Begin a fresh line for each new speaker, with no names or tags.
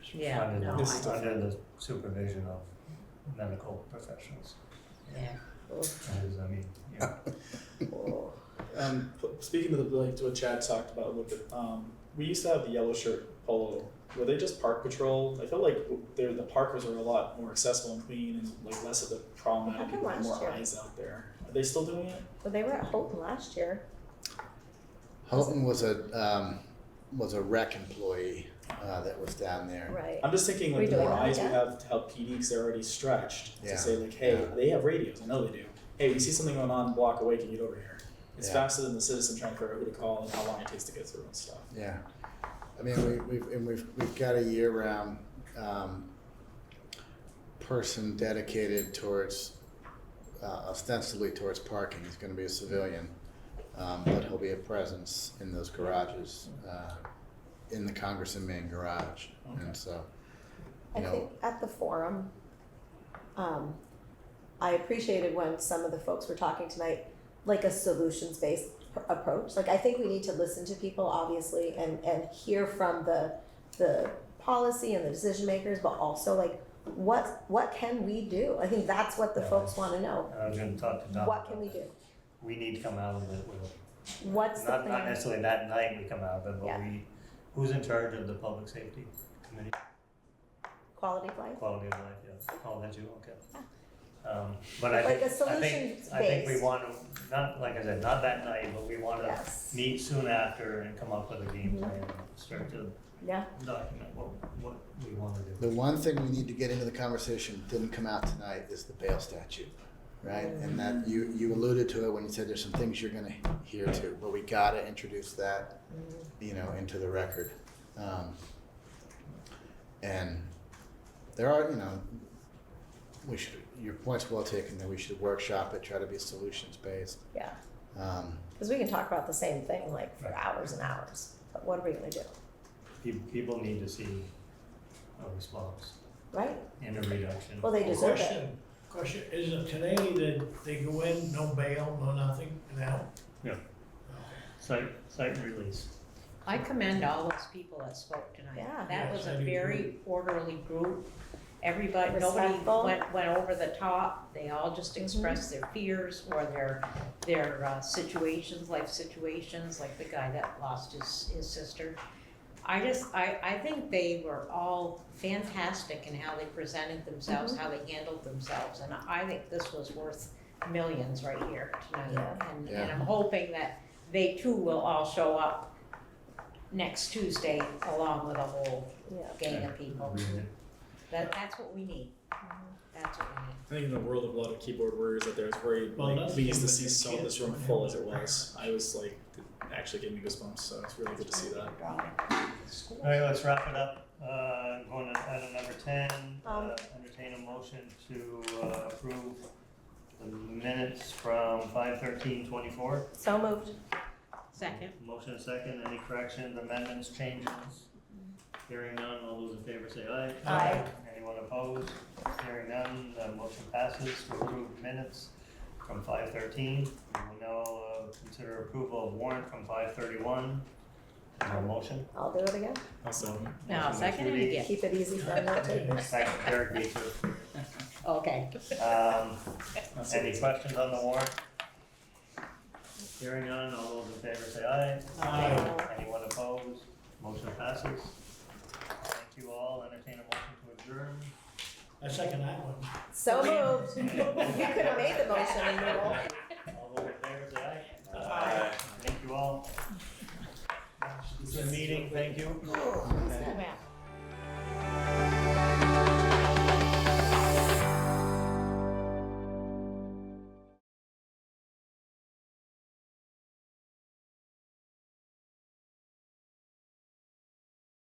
Yeah,
Under-
no,
This is
I-
under the supervision of medical professionals.
yeah. Oof.
That is, I mean, you know,
Oh.
Um, p- speaking of the, like to what Chad talked about a little bit, um, we used to have the yellow shirt polo. Were they just park patrol? I felt like w- they're, the parkers are a lot more accessible and clean and like less of the problematic
happened
and
last
more
year.
eyes out there. Are they still doing it?
Well, they were at Holton last year.
Houghton was a um, was a rec employee uh, that was down there.
Right.
Um,
I'm just thinking
We
like the
don't
more
have
eyes we
that.
have to help PD because they're already stretched
Yeah.
to say like, hey,
Yeah.
they have radios. I know they do. Hey, we see something going on, block away, can you get over here? It's
Yeah.
faster than the citizen trying to figure out who to call and how long it takes to get through and stuff.
Yeah, I mean we, we've and we've we've got a year round um, person dedicated towards uh, ostensibly towards parking. He's going to be a civilian, um, but he'll be a presence in those garages, uh, in the Congress and Main Garage,
Okay.
and so
I
you know
think at the forum, um, I appreciated when some of the folks were talking tonight, like a solutions based approach. Like I think we need to listen to people, obviously, and and hear from the the policy and the decision makers, but also like what what can we do? I think that's what the
Yeah.
folks want to know.
I was gonna talk to Don.
What can we do?
We need to come out of it with,
What's the
not, not
plan?
necessarily that night we come out of it, but
Yeah.
we, who's in charge of the public safety committee,
Quality of life.
quality of life, yes, oh, that's you, okay. Um, but I
Like
think,
a
I think, I think we
solutions-based.
wanna, not, like I said, not that night, but we wanna
Yes.
meet soon after and come up with a game
Mhm.
plan, and start to
Yeah.
document what, what we wanna do.
The one thing we need to get into the conversation didn't come out tonight is the bail statute, right? And that you you alluded to it when you said there's some things you're going to hear to, but we got to introduce that, you know, into the record. Um, and there are, you know, we should. Your point's well taken. That we should workshop it, try to be solutions based.
Yeah.
Um,
Because we can talk about the same thing like for hours and hours. But what are we gonna do?
Pe- People need to see a response
Right?
and a reduction.
Well, they deserve it.
Question, question, is it today that they go in, no bail, no nothing, and out?
Site, site release.
I commend all those people that spoke tonight.
Yeah.
That
Yes,
was
I
a
do
very orderly group. Everybody, nobody
Respectful. Mm-hmm.
went, went over the top. They all just expressed their fears or their, their uh, situations, life situations, like the guy that lost his, his sister. I just, I, I think they were all fantastic in how they presented themselves,
Mm-hmm.
how they handled themselves. And I think this was worth millions right here tonight.
Yeah.
And, and
Yeah.
I'm hoping that they too will all show up next Tuesday along with a whole
Yeah.
gang of people.
Read
That, that's what we need. That's what we need.
I think in the world of a lot of keyboard warriors out there, it's very
Well,
like,
that's
pleased to
because
see
they
so
can't
this room
find
full
out
as it
where they
was. I was like, it actually gave me goosebumps, so it's really good to see that.
All right, let's wrap it up. Uh, going to item number ten, uh,
Um.
entertain a motion to uh, approve the minutes from five thirteen twenty-four.
So moved.
Second.
Motion and second, any corrections, amendments, changes? Hearing none, all those in favor say aye.
Aye.
Anyone opposed? Hearing none, the motion passes to approve minutes from five thirteen. We will now uh, consider approval of warrant from five thirty-one. Is there a motion?
I'll do it again.
Awesome.
Now, second and again.
Keep it easy for note takers.
Second, Eric Beecher.
Okay.
Um,
That's
any
it.
questions on the warrant? Hearing none, all those in favor say aye.
Aye.
Anyone opposed? Motion passes. Thank you all, entertain a motion to adjourn.
I second that one.
So moved. You could have made the motion and you all.
All those in favor say aye. Aye. Thank you all. This is a meeting, thank you.
all